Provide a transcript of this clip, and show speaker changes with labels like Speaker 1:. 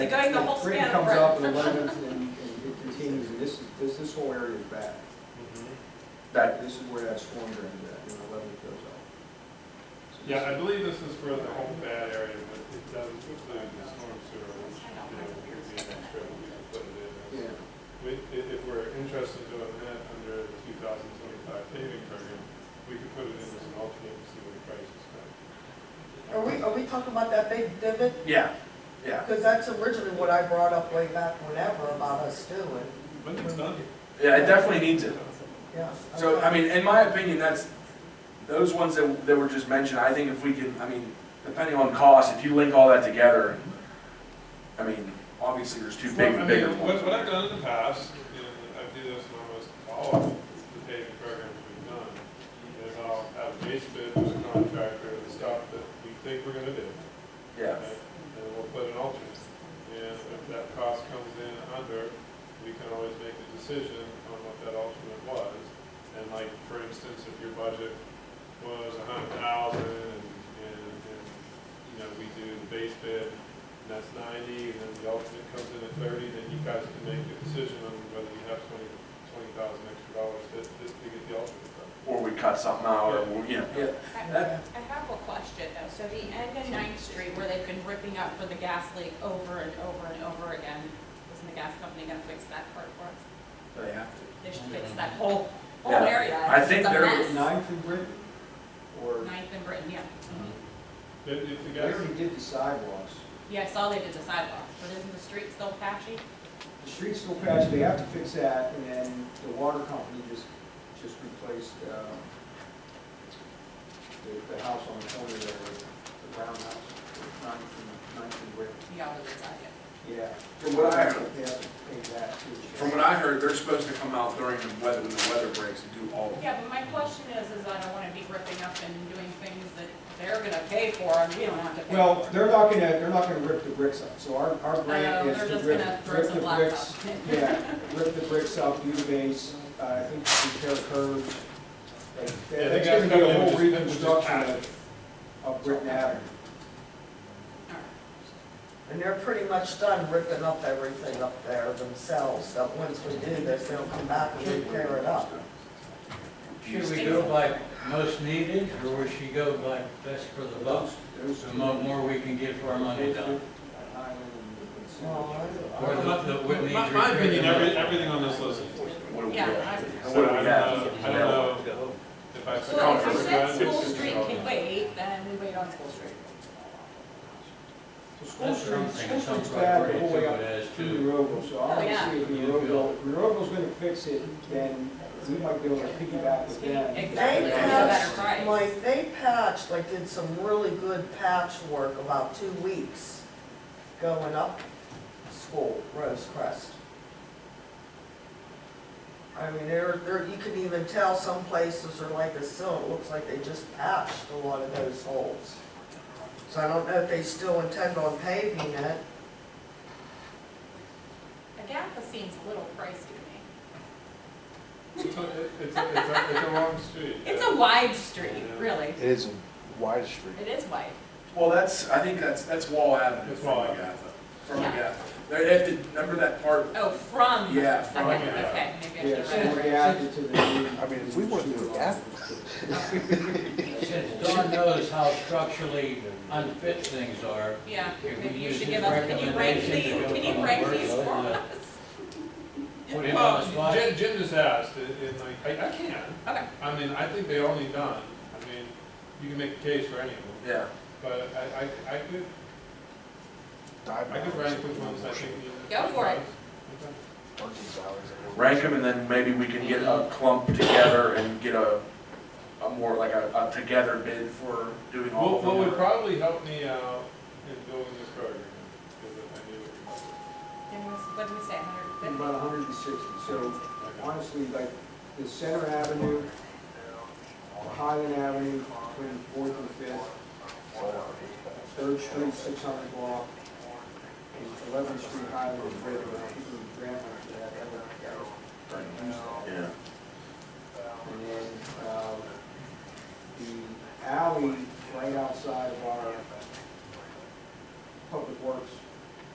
Speaker 1: Going the whole span of
Speaker 2: comes
Speaker 1: road.
Speaker 2: up in eleventh and and it continues, and this, is- this, this whole area is back.
Speaker 3: Mm-hmm.
Speaker 2: That, this is where that storm drain is at, and eleventh goes out. So
Speaker 3: Yeah,
Speaker 2: this-
Speaker 3: I believe this is for the whole bad area, but it doesn't include the storm sewer, which, you know, would be an extra, we could put it in.
Speaker 2: Yeah,
Speaker 3: as- We, if, if we're interested in doing that under the two thousand twenty-five paving program, we could put it in as an alternate and see what the price is going.
Speaker 4: Are we, are we talking about that big divot?
Speaker 2: yeah, yeah,
Speaker 4: Because that's originally what I brought up way back whenever about us doing,
Speaker 3: But it's done.
Speaker 5: Yeah, it definitely needs it.
Speaker 4: yeah.
Speaker 5: So, I mean, in my opinion, that's, those ones that, that were just mentioned, I think if we can, I mean, depending on cost, if you link all that together, I mean, obviously, there's two big,
Speaker 3: Well, I
Speaker 5: bigger
Speaker 3: mean,
Speaker 5: ones.
Speaker 3: What, what I've done in the past, you know, I do this in almost all of the paving programs we've done, is I'll have a base bid with a contractor, the stuff that we think we're gonna do.
Speaker 5: Yeah,
Speaker 3: right? And we'll put an alternate, and if that cost comes in under, we can always make a decision on what that alternate was. And like, for instance, if your budget was a hundred thousand, and, and, and, you know, we do the base bid, and that's ninety, and then the alternate comes in at thirty, then you guys can make a decision on whether you have twenty, twenty thousand extra dollars to, to to get the alternate done.
Speaker 5: or we cut something out, or, you know, yeah.
Speaker 1: I I have a question though, so the end of Ninth Street where they've been ripping up for the gas leak over and over and over again, isn't the gas company gonna fix that part for us?
Speaker 5: They have to.
Speaker 1: They should fix that whole, whole
Speaker 5: Yeah.
Speaker 1: area.
Speaker 5: I think
Speaker 1: It's a
Speaker 5: they're-
Speaker 1: mess.
Speaker 2: ninth in Britain, or,
Speaker 1: Ninth and Britain, yeah.
Speaker 3: If, if the
Speaker 2: they
Speaker 3: guys,
Speaker 2: already did the sidewalks.
Speaker 1: Yeah, I saw they did the sidewalks, but isn't the street still patchy?
Speaker 2: The street's still patchy, they have to fix that, and then the water company just, just replaced, um, the, the house on the corner there, the brown house, ninth and, ninth and Britain.
Speaker 1: The other side, yeah.
Speaker 2: Yeah.
Speaker 5: From what I heard.
Speaker 2: They have to pay that too.
Speaker 5: From what I heard, they're supposed to come out during the weather, when the weather breaks and do all of it.
Speaker 1: Yeah, but my question is, is I don't wanna be ripping up and doing things that they're gonna pay for and we don't have to pay for.
Speaker 2: Well, they're not gonna, they're not gonna rip the bricks up, so our, our grant
Speaker 1: Oh,
Speaker 2: is
Speaker 1: they're
Speaker 2: to
Speaker 1: just
Speaker 2: rip,
Speaker 1: gonna throw
Speaker 2: rip
Speaker 1: some
Speaker 2: the
Speaker 1: blacktop.
Speaker 2: bricks. Yeah, rip the bricks up, do the base, uh, I think repair curves. like,
Speaker 3: Yeah,
Speaker 2: that-
Speaker 3: they
Speaker 2: That's
Speaker 3: guys
Speaker 2: gonna
Speaker 3: come
Speaker 2: be
Speaker 3: in
Speaker 2: a whole
Speaker 3: and just- and just
Speaker 2: reconstruction
Speaker 3: patch
Speaker 2: of, of Britain Avenue.
Speaker 1: All right.
Speaker 4: And they're pretty much done ripping up everything up there themselves, so once we do this, they'll come back and repair it up.
Speaker 6: Should we go by most needed, or would she go by best for the buck?
Speaker 2: Those
Speaker 6: The
Speaker 2: two-
Speaker 6: mo- more we can get for our money done.
Speaker 2: Highland and-
Speaker 4: Well, I-
Speaker 6: Or the, the, what needs
Speaker 3: my, my
Speaker 6: repaired the
Speaker 3: opinion, every,
Speaker 6: most.
Speaker 3: everything on this list is
Speaker 5: What do we
Speaker 1: Yeah,
Speaker 5: have?
Speaker 1: I-
Speaker 5: And what do we have?
Speaker 3: So, I don't know, I don't know if I. should
Speaker 1: Well, if
Speaker 5: Conference.
Speaker 1: you
Speaker 3: cover
Speaker 1: said
Speaker 3: that.
Speaker 1: School Street can wait, then we wait on School Street.
Speaker 2: So School
Speaker 6: That's
Speaker 2: Street,
Speaker 6: something,
Speaker 2: School
Speaker 6: it
Speaker 2: Street's
Speaker 6: sounds
Speaker 2: bad
Speaker 6: like
Speaker 2: the
Speaker 6: pretty
Speaker 2: whole way
Speaker 6: simple
Speaker 2: up
Speaker 6: as
Speaker 2: to
Speaker 6: to,
Speaker 2: Monroeville, so
Speaker 1: Oh,
Speaker 2: I
Speaker 1: yeah.
Speaker 2: want to see if Monroeville, if Monroeville's gonna fix it, then we might be able to piggyback with them.
Speaker 1: Exactly,
Speaker 4: They
Speaker 1: Exactly. Yeah.
Speaker 4: patched,
Speaker 1: Better price.
Speaker 4: like, they patched, like, did some really good patchwork about two weeks going up school, Rose Crest. I mean, there, there, you can even tell some places are like a sill, it looks like they just patched a lot of those holes. So I don't know if they still intend on paving it.
Speaker 1: Agatha seems a little pricey to me.
Speaker 3: It's a, it's a, it's a- it's a long street.
Speaker 1: It's a wide street, really.
Speaker 7: It is a wide street.
Speaker 1: It is wide.
Speaker 5: Well, that's, I think that's, that's Wall Avenue
Speaker 3: It's
Speaker 5: from
Speaker 3: Wall
Speaker 5: Agatha, from
Speaker 1: Yeah.
Speaker 5: Agatha. They have to, remember that part,
Speaker 1: Oh, from.
Speaker 5: Yeah,
Speaker 1: okay,
Speaker 5: from, yeah.
Speaker 1: Okay, maybe I
Speaker 2: Yeah,
Speaker 1: should.
Speaker 2: so
Speaker 1: write it
Speaker 2: we
Speaker 1: right.
Speaker 2: added to the.
Speaker 7: I mean, if we were to do that-
Speaker 6: since Don knows how structurally unfit things are,
Speaker 1: Yeah,
Speaker 6: Can we
Speaker 1: maybe you
Speaker 6: use
Speaker 1: should
Speaker 6: his
Speaker 1: give us, can you rank
Speaker 6: recommendation to
Speaker 1: these, can
Speaker 6: go from
Speaker 1: you
Speaker 6: a
Speaker 1: rank
Speaker 6: word
Speaker 1: these
Speaker 6: to
Speaker 1: for
Speaker 6: another?
Speaker 1: us?
Speaker 6: put him on the
Speaker 3: Well,
Speaker 6: spot.
Speaker 3: Jim, Jim just asked, and and like, I, I can.
Speaker 1: Okay.
Speaker 3: I mean, I think they all need done. I mean, you can make a case for any of them,
Speaker 5: yeah.
Speaker 3: but I, I, I could, I could rank which ones I think need.
Speaker 1: Go for it.
Speaker 3: Okay.
Speaker 5: rank them, and then maybe we can get a clump together and get a, a more like a, a together bid for doing all
Speaker 3: What,
Speaker 5: of
Speaker 3: what would
Speaker 5: them.
Speaker 3: probably help me out in building this program is if I knew what you
Speaker 1: Then what's- What did we say, hundred and fifty?
Speaker 2: About hundred and sixty, so
Speaker 3: were. Like,
Speaker 2: honestly, like, the Center Avenue, Highland Avenue, between Fourth and Fifth, Third Street, six hundred block, and Eleventh Street, Highland, and River, I think we grant one for that, that would, that was pretty useful.
Speaker 5: Yeah,
Speaker 2: And then, um, the alley right outside of our public works